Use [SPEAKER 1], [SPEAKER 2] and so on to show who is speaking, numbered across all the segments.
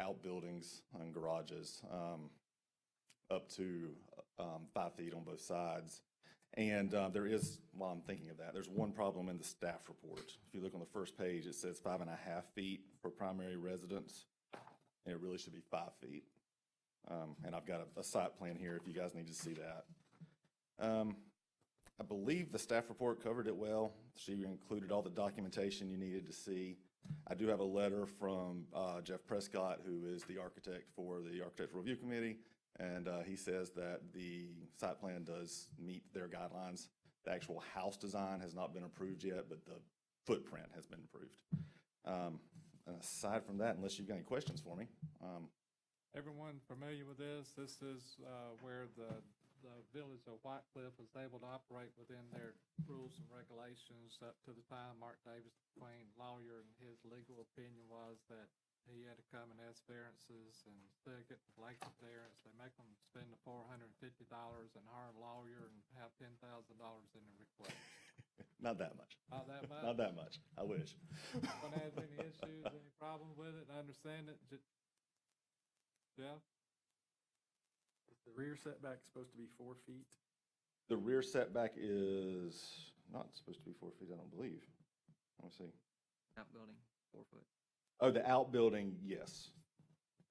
[SPEAKER 1] outbuildings and garages um, up to um, five feet on both sides. And uh, there is, while I'm thinking of that, there's one problem in the staff report. If you look on the first page, it says five and a half feet for primary residence, and it really should be five feet. Um, And I've got a- a site plan here if you guys need to see that. Um, I believe the staff report covered it well. She included all the documentation you needed to see. I do have a letter from uh, Jeff Prescott, who is the architect for the Architectural Review Committee, and uh, he says that the site plan does meet their guidelines. The actual house design has not been approved yet, but the footprint has been approved. Um, and Aside from that, unless you've got any questions for me, um,
[SPEAKER 2] Everyone familiar with this? This is uh, where the, the village of White Cliff was able to operate within their rules and regulations up to the time Mark Davis, Queen lawyer, and his legal opinion was that he had to come and ask variances and still get blanket variance. They make them spend the four hundred and fifty dollars and hire a lawyer and have ten thousand dollars in the request.
[SPEAKER 1] not that much,
[SPEAKER 2] Not that much.
[SPEAKER 1] not that much, I wish.
[SPEAKER 2] Anyone has any issues, any problem with it, I understand it, Ju- Jeff?
[SPEAKER 3] The rear setback's supposed to be four feet.
[SPEAKER 1] The rear setback is not supposed to be four feet, I don't believe. Let me see.
[SPEAKER 4] outbuilding, four foot.
[SPEAKER 1] Oh, the outbuilding, yes.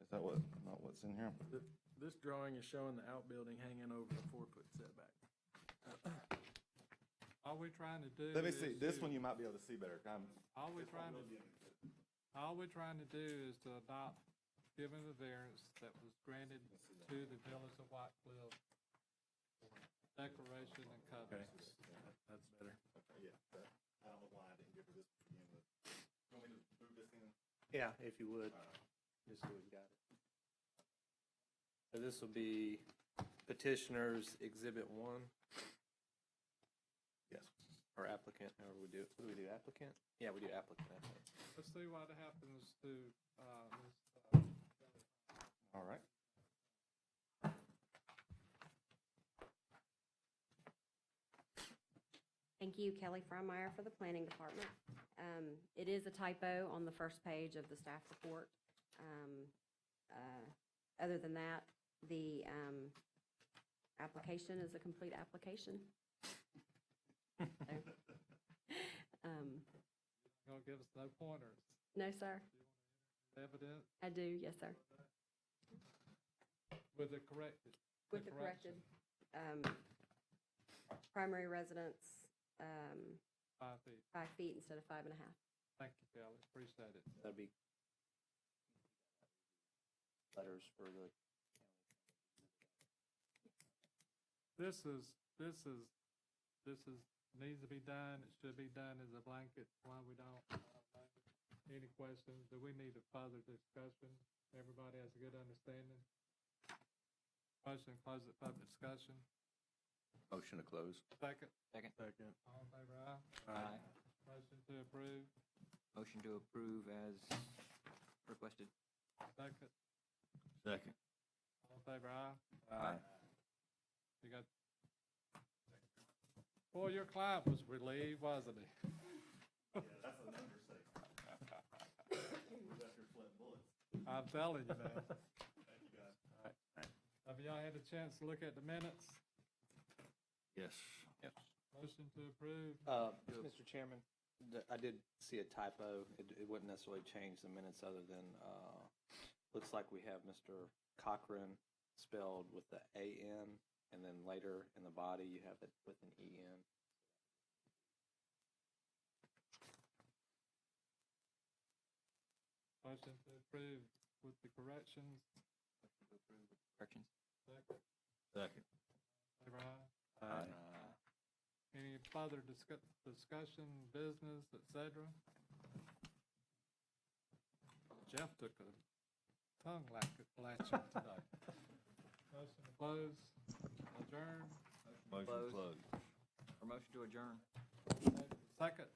[SPEAKER 1] Is that what, not what's in here?
[SPEAKER 3] Th- This drawing is showing the outbuilding hanging over the four-foot setback.
[SPEAKER 2] All we're trying to do.
[SPEAKER 1] Let me see,
[SPEAKER 2] is
[SPEAKER 1] this
[SPEAKER 2] to-
[SPEAKER 1] one you might be able to see better. Um,
[SPEAKER 2] All we're trying to, all we're trying to do is to adopt, given the variance that was granted to the village of White Cliff declaration and covenant.
[SPEAKER 3] That's better.
[SPEAKER 1] Yeah, that- I don't know why I didn't give her this to begin with. You want me to move this in?
[SPEAKER 5] Yeah, if you would, just so we've got it. So this will be petitioners exhibit one,
[SPEAKER 1] Yes.
[SPEAKER 5] or applicant, however we do, it. what do we do, applicant? Yeah, we do applicant, I think.
[SPEAKER 2] Let's see what happens to, uh, this, uh,
[SPEAKER 1] All right.
[SPEAKER 6] Thank you, Kelly Freymeyer, for the Planning Department. Um, It is a typo on the first page of the staff report. Um, uh, Other than that, the um, application is a complete application. So, um,
[SPEAKER 2] gonna give us no pointers.
[SPEAKER 6] No, sir.
[SPEAKER 2] Evident
[SPEAKER 6] I do, yes, sir.
[SPEAKER 2] with the corrected.
[SPEAKER 6] With the corrected um, primary residence, um,
[SPEAKER 2] Five feet.
[SPEAKER 6] five feet instead of five and a half.
[SPEAKER 2] Thank you, Kelly. Appreciate it.
[SPEAKER 5] That'd be letters for the,
[SPEAKER 2] This is, this is, this is, needs to be done, it should be done as a blanket, why we don't. uh, Any questions, do we need a further discussion? Everybody has a good understanding? Motion, to close the public discussion,
[SPEAKER 7] Motion to close.
[SPEAKER 2] second,
[SPEAKER 4] Second.
[SPEAKER 3] Second.
[SPEAKER 2] all in favor, aye,
[SPEAKER 4] Aye.
[SPEAKER 2] motion to approve,
[SPEAKER 4] Motion to approve as requested.
[SPEAKER 2] second,
[SPEAKER 7] Second.
[SPEAKER 2] all in favor, aye.
[SPEAKER 7] Aye.
[SPEAKER 2] You got. Boy, your client was relieved, wasn't he?
[SPEAKER 1] That's an understatement. That's your flip bullets.
[SPEAKER 2] I'm telling you, man.
[SPEAKER 1] Thank you, guys.
[SPEAKER 2] Have y'all had a chance to look at the minutes?
[SPEAKER 7] Yes. Yes.
[SPEAKER 2] Motion to approve.
[SPEAKER 5] uh, Mr. Chairman, the- I did see a typo. It, it wouldn't necessarily change the minutes other than, uh, looks like we have Mr. Cochran spelled with the A-N, and then later in the body, you have it with an E E-N.
[SPEAKER 2] Motion to approve with the corrections.
[SPEAKER 4] Corrections?
[SPEAKER 2] Second,
[SPEAKER 7] Second.
[SPEAKER 2] favor aye.
[SPEAKER 7] Aye.
[SPEAKER 2] Any further discuss, discussion, business, et cetera? Jeff took a tongue lack, latching today. Motion to close, adjourn,
[SPEAKER 7] Motion to
[SPEAKER 4] Close.
[SPEAKER 7] close.
[SPEAKER 4] Or motion to adjourn?
[SPEAKER 2] second,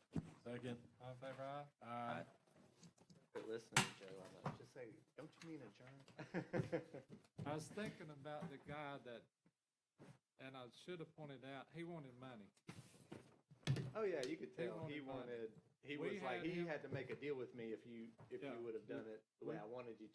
[SPEAKER 3] Second.
[SPEAKER 2] all in favor aye.
[SPEAKER 3] Aye.
[SPEAKER 5] Quit listening, Joe, on that.
[SPEAKER 7] Just say, don't you mean adjourn?
[SPEAKER 2] I was thinking about the guy that, and I should have pointed out, he wanted money.
[SPEAKER 5] Oh yeah, you could
[SPEAKER 2] He
[SPEAKER 5] tell he
[SPEAKER 2] wanted money.
[SPEAKER 5] wanted. He
[SPEAKER 2] We
[SPEAKER 5] was like
[SPEAKER 2] had him-
[SPEAKER 5] he had to make a deal with me if you if
[SPEAKER 2] Yeah.
[SPEAKER 5] you would have done it the way I wanted you to.